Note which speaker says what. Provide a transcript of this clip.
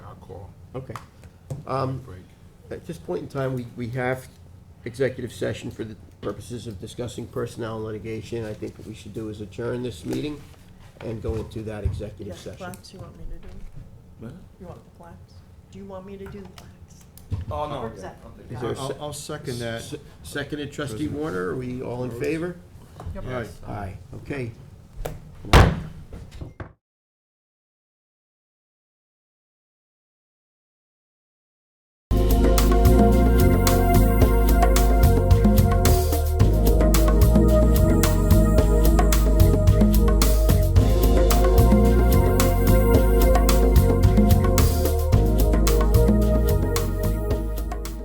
Speaker 1: Okay. Um, At this point in time, we, we have executive session for the purposes of discussing personnel and litigation. I think what we should do is adjourn this meeting and go into that
Speaker 2: Yeah,
Speaker 1: executive session.
Speaker 2: plaques, you want me to do? You want the plaques? Do you want me to do the plaques?
Speaker 3: Oh, no.
Speaker 2: Or
Speaker 3: okay.
Speaker 2: is that-
Speaker 3: I'll take
Speaker 1: Is
Speaker 3: that.
Speaker 1: there a
Speaker 4: I'll,
Speaker 1: se-
Speaker 4: I'll second that.
Speaker 1: se- Seconded trustee Warner, are we all in favor?
Speaker 2: Yep.
Speaker 4: All right.
Speaker 1: Aye, okay.